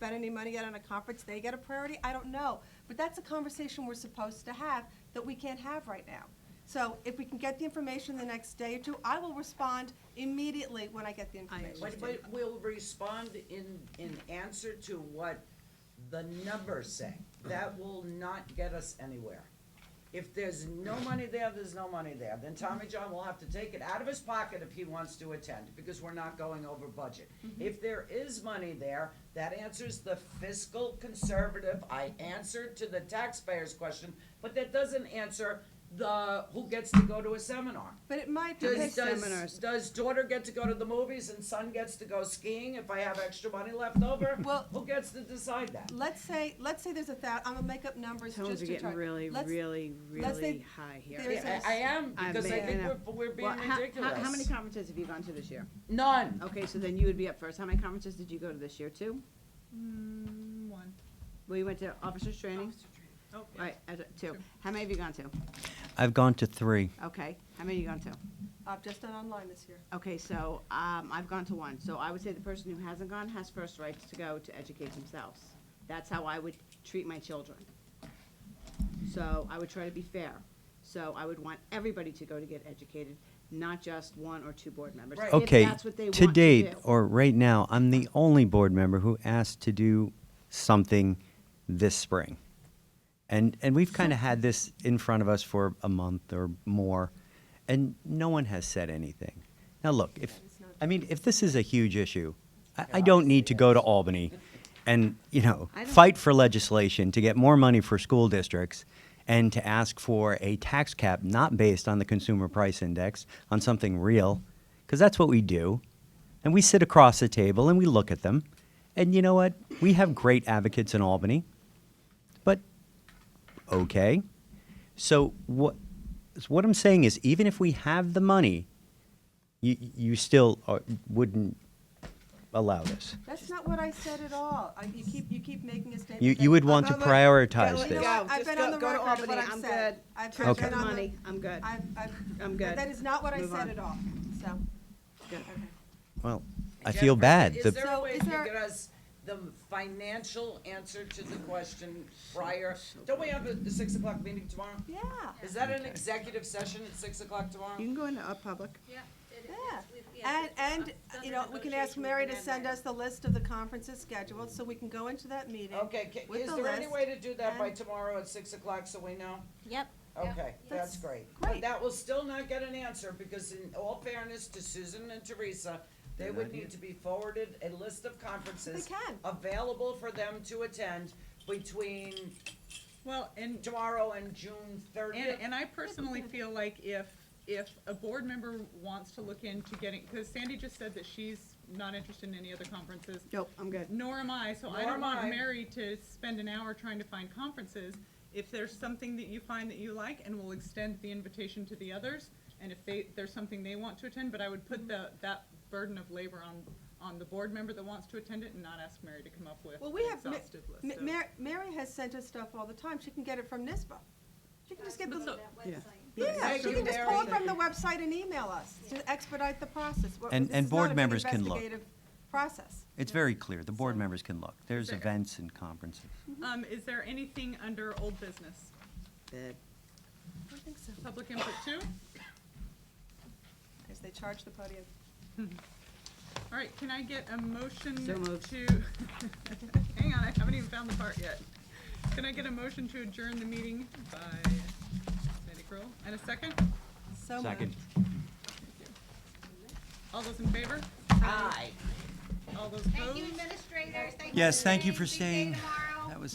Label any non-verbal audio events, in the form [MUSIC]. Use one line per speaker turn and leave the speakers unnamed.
spent any money yet on a conference, they get a priority, I don't know. But that's a conversation we're supposed to have that we can't have right now. So if we can get the information the next day or two, I will respond immediately when I get the
But,
information.
but we'll respond in, in answer to what the numbers say. That will not get us anywhere. If there's no money there, there's no money there. Then Tommy John will have to take it out of his pocket if he wants to attend, because we're not going over budget. If there is money there, that answers the fiscal conservative, I answered to the taxpayers question, but that doesn't answer the, who gets to go to a seminar.
But it might be.
Does, does,
seminars.
does daughter get to go to the movies and son gets to go skiing if I have extra money left over?
Well-
Who gets to decide that?
Let's say, let's say there's a thou, I'm gonna make up numbers just to
Tones are
try.
getting really,
Let's-
really,
let's say
really high here.
there's-
Yeah, I, I am,
I
because I
made
think
it
we're,
up.
we're being
Well, how- how-
ridiculous.
How many conferences have you gone to this year?
None.
Okay, so then you would be up first. How many conferences did you go to this year, two?
Mm, one.
Well, you went to officers training?
Oh, yeah.
Right, as a- two. How many have you gone to?
I've gone to three.
Okay, how many have you gone to?
I've just done online this year.
Okay, so, um, I've gone to one, so I would say the person who hasn't gone has first rights to go to educate themselves. That's how I would treat my children. So I would try to be fair. So I would want everybody to go to get educated, not just one or two board members.
Right.
if
Okay,
that's what they
to
want
date
do.
or right now, I'm the only board member who asked to do something this spring. And, and
[LAUGHS]
we've kind of had this in front of us for a month or more, and no one has said anything. Now, look, if, I mean, if this is a huge issue, I, I don't need to go to Albany and, you know,
I don't-
fight for legislation to get more money for school districts and to ask for a tax cap not based on the consumer price index, on something real, because that's what we do. And we sit across the table and we look at them. And you know what? We have great advocates in Albany, but okay. So what, so what I'm saying is, even if we have the money, you, you still uh, wouldn't allow this.
That's not what I said at all. I- You keep, you keep making a statement.
You,
that-
you would want to
I'm- I'm-
prioritize
You know
this.
what? I've
Go, just
been
go-
on the
go to
record of what
Albany.
I've
I'm
said.
good.
I've
Touch
been
the
on the-
money. I'm good.
I've, I've. that-
I'm good.
That is not what I
Move
said
on.
at all, so.
Good.
okay.
Well, I feel bad.
Is
The-
there a
So
way
is
to
there-
get us the financial answer to the question prior? Don't we have a the six o'clock meeting tomorrow?
Yeah.
Is that an executive session at six o'clock tomorrow?
You can go into a public.
Yeah. it-
Yeah,
it's- we've- yeah,
and,
it's-
and,
it's under
you know, we can ask
negotiation
Mary
with
to
the
send
landlord.
us the list of the conferences scheduled, so we can go into that meeting.
Okay, ca-
with
is
the
there any
list.
way to do that by
and-
tomorrow at six o'clock so we know?
Yep.
Okay, that's
That's
great.
great.
But that will still not get an answer, because in all fairness to Susan and Teresa, they would need to be forwarded a list of conferences
They can.
available for them to attend between
Well, and,
tomorrow and June
and,
thirtieth.
and I personally feel like if, if a board member wants to look into getting, because Sandy just said that she's not interested in any other conferences.
Nope, I'm good.
Nor am I, so
Nor
I don't
am
want
I.
Mary to spend an hour trying to find conferences. If there's something that you find that you like, and we'll extend the invitation to the others, and if they, there's something they want to attend, but I would put
Mm-hmm.
the, that burden of labor on, on the board member that wants to attend it and not ask Mary to come up with
Well,
an
we have, Ma-
exhaustive list.
Ma-
of-
Mar- Mary has sent us stuff all the time, she can get it from NISBA. She can just get
Go
the,
to that
Yeah.
website.
yeah,
Thank
she
you,
can just pull it
Mary.
from the website and email us to expedite the process. We're-
And-
this
and
is
board
not a big
members can look.
investigative Process.
It's very clear. The board members can look. There's
Fair.
events and conferences.
Um, is there anything under old business?
Good.
I don't think so,
Public input two?
because they charge the podium.
All right, can I get a motion
So moved.
to? [LAUGHS] Hang on, I haven't even found the part yet. Can I get a motion to adjourn the meeting by Sandy Crowell? And a second?
So moved.
All those in favor?
Aye.
All those
Thank you,
opposed?
administrators. Thank you
Yes,
for
thank you
staying.
for
See you
staying.
tomorrow.